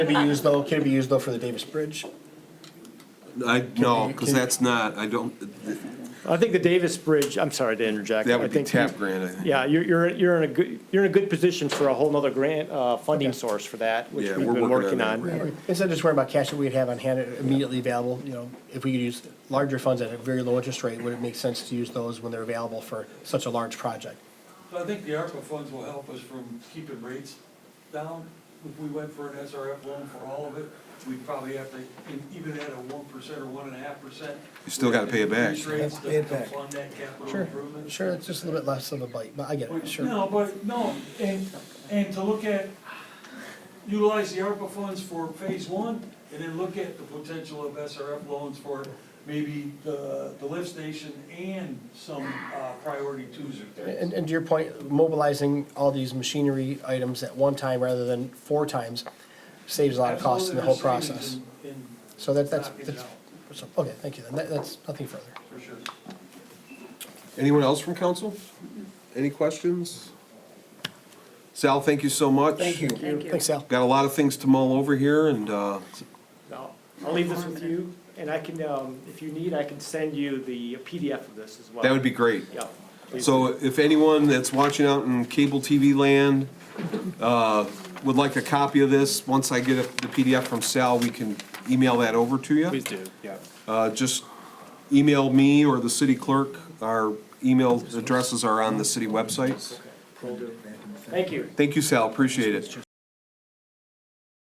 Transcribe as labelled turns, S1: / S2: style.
S1: Can it be used though, can it be used though for the Davis Bridge?
S2: I, no, because
S1: can-
S2: that's not, I don't, th-
S3: I think the Davis Bridge, I'm sorry to interject.
S2: that
S3: I
S2: would be
S3: think
S2: tap
S3: you-
S2: grant, I think.
S3: Yeah, you're, you're, you're in a good, you're in a good position for a whole nother grant, uh, funding source for that, which
S2: Yeah,
S3: we've
S2: we're
S3: been
S2: working
S3: working
S2: on that.
S3: on.
S1: Instead of just worrying about cash that we'd have on hand immediately available, you know, if we could use larger funds at a very low interest rate, would it make sense to use those when they're available for such a large project?
S4: I think the ARPA funds will help us from keeping rates down. If we went for an SRF loan for all of it, we'd probably have to, and even at a one percent or one and a half percent.
S2: You still gotta pay it back.
S4: Increase rates
S1: Pay
S4: to
S1: it
S4: to
S1: back.
S4: fund that capital
S1: Sure,
S4: improvement.
S1: sure, it's just a little bit less of a bite, but I get it, sure.
S4: No, but, no, and, and to look at, utilize the ARPA funds for phase one, and then look at the potential of SRF loans for maybe the, the lift station and some uh, priority twos or threes.
S1: And, and to your point, mobilizing all these machinery items at one time rather than four times saves a lot of costs in the whole
S4: Absolutely, there's
S1: process.
S4: savings in- in
S1: So that, that's,
S4: knocking it
S1: that's,
S4: out,
S1: so, okay, thank you, then, that, that's nothing further.
S4: For sure.
S2: Anyone else from council? Any questions? Sal, thank you so much. Thank you.
S5: Thank you.
S1: Thanks, Sal.
S2: Got a lot of things to mull over here, and, uh,
S3: Now, I'll leave this with you, and I can, um, if you need, I can send you the PDF of this as well.
S2: that would be great.
S3: Yeah. please.
S2: So if anyone that's watching out in cable TV land uh, would like a copy of this, once I get a- the PDF from Sal, we can email that over to you.
S6: Please do, yeah.
S2: Uh, Just email me or the city clerk. Our email addresses are on the city website.
S3: Thank you.
S2: Thank you, Sal, appreciate it.